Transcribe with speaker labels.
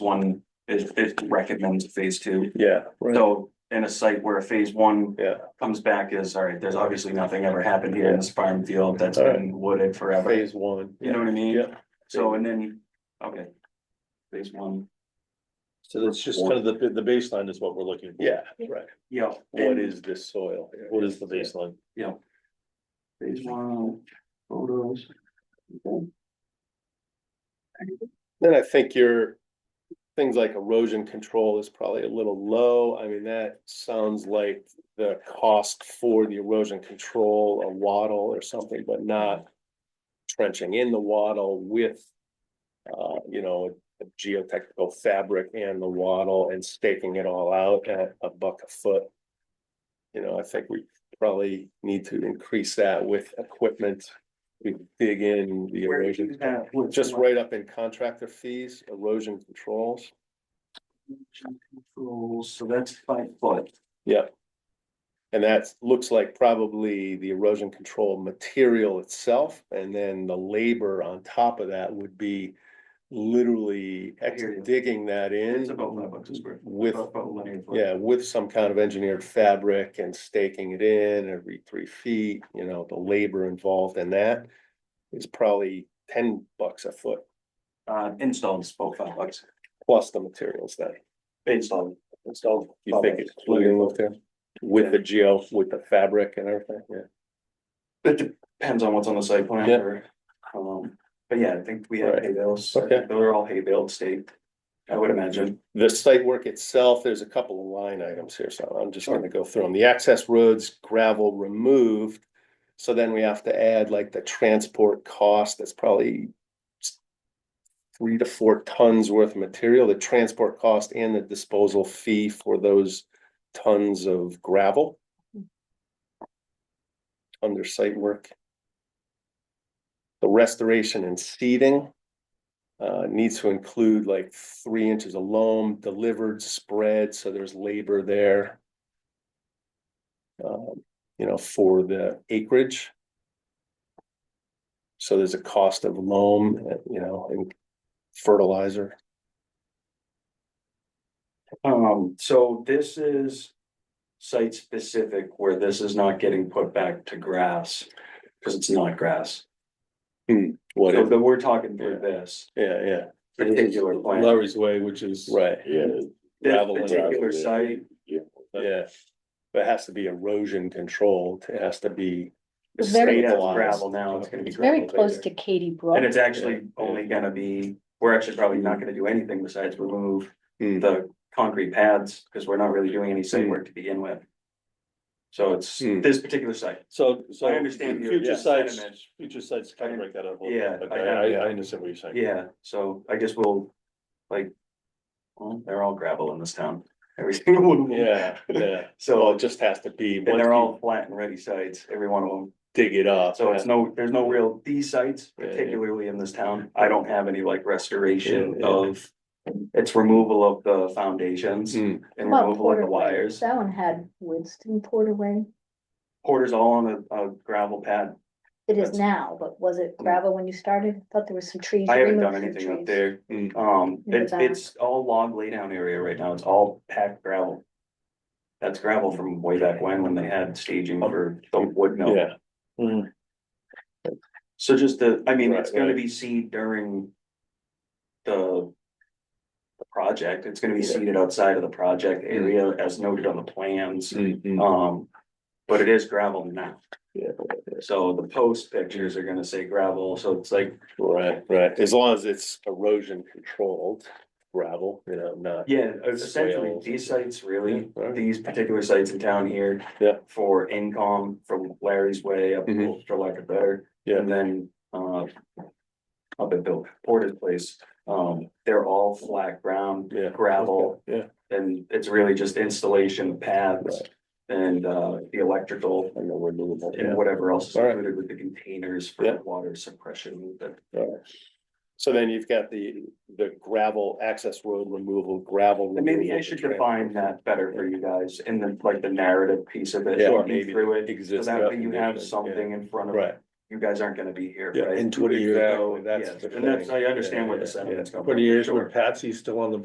Speaker 1: one is, is recommends a phase two.
Speaker 2: Yeah, right,
Speaker 1: So in a site where phase one
Speaker 2: yeah,
Speaker 1: comes back is, all right, there's obviously nothing ever happened here in this farm field that's been wooded forever.
Speaker 2: phase one.
Speaker 1: You know what I mean?
Speaker 2: Yeah.
Speaker 1: So and then, okay. Phase one,
Speaker 2: So that's just kind of the, the baseline is what we're looking for. Yeah, right.
Speaker 1: yeah.
Speaker 2: What
Speaker 1: and
Speaker 2: is this soil? What is the baseline?
Speaker 1: Phase one, photos. Okay.
Speaker 3: Then I think your things like erosion control is probably a little low. I mean, that sounds like the cost for the erosion control, a wattle or something, but not trenching in the wattle with uh, you know, a geotechnical fabric and the wattle and staking it all out at a buck a foot. You know, I think we probably need to increase that with equipment. We dig in the
Speaker 1: Where
Speaker 3: erosion.
Speaker 1: is that? What's
Speaker 3: Just
Speaker 1: what?
Speaker 3: right up in contractor fees, erosion controls.
Speaker 1: Controls, so that's five foot.
Speaker 3: Yep. And that looks like probably the erosion control material itself, and then the labor on top of that would be literally
Speaker 1: I hear you.
Speaker 3: digging that
Speaker 1: It's
Speaker 3: in
Speaker 1: about five bucks a Oh, square. foot,
Speaker 3: with,
Speaker 1: about- about linear foot.
Speaker 3: yeah, with some kind of engineered fabric and staking it in every three feet, you know, the labor involved in that is probably ten bucks a foot,
Speaker 1: Uh, installed is about five bucks.
Speaker 3: plus the materials then.
Speaker 1: Installed, installed.
Speaker 3: You think it's including with there, with the geo, with the fabric and everything, yeah.
Speaker 1: It depends on what's on the site plan
Speaker 3: Yeah.
Speaker 1: or, um, but yeah, I think we have
Speaker 3: Right.
Speaker 1: hay bales.
Speaker 3: Okay.
Speaker 1: They're all hay baled state, I would imagine.
Speaker 3: The site work itself, there's a couple of line items here, so I'm just gonna go through them. The access roads gravel removed. So then we have to add like the transport cost, that's probably s- three to four tons worth of material, the transport cost and the disposal fee for those tons of gravel. Under site work. The restoration and seeding. Uh, needs to include like three inches of loam delivered, spread, so there's labor there. Um, you know, for the acreage. So there's a cost of loam, uh, you know, and fertilizer.
Speaker 1: Um, so this is site specific where this is not getting put back to grass, because it's not grass.
Speaker 3: What,
Speaker 1: So
Speaker 3: if-
Speaker 1: that we're talking through this
Speaker 3: yeah, yeah,
Speaker 1: particular plan,
Speaker 4: Larry's Way, which is.
Speaker 3: right,
Speaker 4: Yeah.
Speaker 1: this
Speaker 3: gravel and
Speaker 4: gravel,
Speaker 1: particular
Speaker 4: yeah.
Speaker 1: site,
Speaker 3: yeah. But it has to be erosion controlled, it has to be.
Speaker 5: It's very-
Speaker 1: straight out
Speaker 3: stabilized.
Speaker 1: gravel now, it's gonna be.
Speaker 5: It's very
Speaker 1: gravel
Speaker 5: close
Speaker 1: later.
Speaker 5: to Katy Brook.
Speaker 1: And it's actually only gonna be, we're actually probably not gonna do anything besides remove
Speaker 3: Mm,
Speaker 1: the concrete pads, because we're not really doing any site work to begin with. So it's
Speaker 3: Hmm.
Speaker 1: this particular site,
Speaker 2: So, so.
Speaker 1: I understand your-
Speaker 2: Future
Speaker 1: yeah,
Speaker 2: sites,
Speaker 1: sentiment.
Speaker 2: future sites kind of break that up. a little
Speaker 1: Yeah,
Speaker 2: bit, but
Speaker 1: I-
Speaker 2: I, I, I understand what you're saying.
Speaker 1: yeah, so I guess we'll, like. Well, they're all gravel in this town, every single one, of them.
Speaker 3: Yeah, yeah, so
Speaker 1: so,
Speaker 3: it just has to be,
Speaker 1: and
Speaker 3: once
Speaker 1: they're
Speaker 3: you
Speaker 1: all flat and ready sites, every one of them,
Speaker 3: dig it up.
Speaker 1: so it's no, there's no real, these sites,
Speaker 3: Yeah, yeah.
Speaker 1: particularly in this town, I don't have any like restoration
Speaker 3: Yeah, yeah.
Speaker 1: of. It's removal of the foundations
Speaker 3: Hmm.
Speaker 1: and
Speaker 5: How about
Speaker 1: removal of the
Speaker 5: Porterway?
Speaker 1: wires.
Speaker 5: That one had Winston Porterway.
Speaker 1: Porter's all on a, a gravel pad.
Speaker 5: It is
Speaker 1: That's- Hmm.
Speaker 5: now, but was it gravel when you started? I Thought there was some trees.
Speaker 1: I
Speaker 5: you
Speaker 1: haven't
Speaker 5: removed
Speaker 1: done
Speaker 5: some
Speaker 1: anything up
Speaker 5: trees.
Speaker 1: there.
Speaker 3: Mm.
Speaker 1: Um,
Speaker 5: In the
Speaker 1: it's,
Speaker 5: back.
Speaker 1: it's all log laydown area right now. It's all packed gravel. That's gravel from way back when, when they had staging for the wood mill.
Speaker 3: Yeah, Mm-hmm.
Speaker 1: So just the, I mean,
Speaker 3: Right,
Speaker 1: it's gonna
Speaker 3: right.
Speaker 1: be seed during the the project. It's gonna be
Speaker 3: Yeah.
Speaker 1: seeded outside of the project area as noted on the plans.
Speaker 3: Mm, mm.
Speaker 1: Um, but it is gravel now.
Speaker 3: Yeah.
Speaker 1: So the post pictures are gonna say gravel, so it's like
Speaker 3: right, right, as long as it's erosion controlled gravel, you know, not.
Speaker 1: Yeah, essentially,
Speaker 3: Swales.
Speaker 1: these sites really,
Speaker 3: Yeah, alright.
Speaker 1: these particular sites in town here.
Speaker 3: Yeah.
Speaker 1: For income from Larry's Way up to
Speaker 3: Mhm.
Speaker 1: Ultra Like a Better,
Speaker 3: Yeah.
Speaker 1: and then, uh. Up at Bill Porter's place, um, they're all flat ground,
Speaker 3: Yeah.
Speaker 1: gravel,
Speaker 3: Yeah,
Speaker 1: and it's really just installation of paths. And, uh, the electrical
Speaker 3: and then renewable,
Speaker 1: and
Speaker 3: yeah.
Speaker 1: whatever else is
Speaker 3: Alright.
Speaker 1: included with the containers
Speaker 3: Yeah.
Speaker 1: for water suppression, that
Speaker 3: So then you've got the, the gravel access road removal, gravel.
Speaker 1: And maybe I
Speaker 3: removal,
Speaker 1: should
Speaker 3: the tra-
Speaker 1: define that better for you guys in the, like, the narrative piece of it,
Speaker 3: Yeah,
Speaker 1: walking
Speaker 3: maybe
Speaker 1: through it. So
Speaker 3: Exists.
Speaker 1: that way you have
Speaker 3: definition, yeah.
Speaker 1: something in front of,
Speaker 3: Right.
Speaker 1: you guys aren't gonna be here,
Speaker 2: Yeah,
Speaker 1: right?
Speaker 2: in 20 years,
Speaker 1: So,
Speaker 3: that's
Speaker 1: yes,
Speaker 3: the
Speaker 1: And that's, I
Speaker 3: thing.
Speaker 1: understand where
Speaker 3: Yeah,
Speaker 1: the
Speaker 3: yeah,
Speaker 1: sentiment's coming.
Speaker 2: Twenty years
Speaker 1: Sure.
Speaker 2: when Patsy's still on the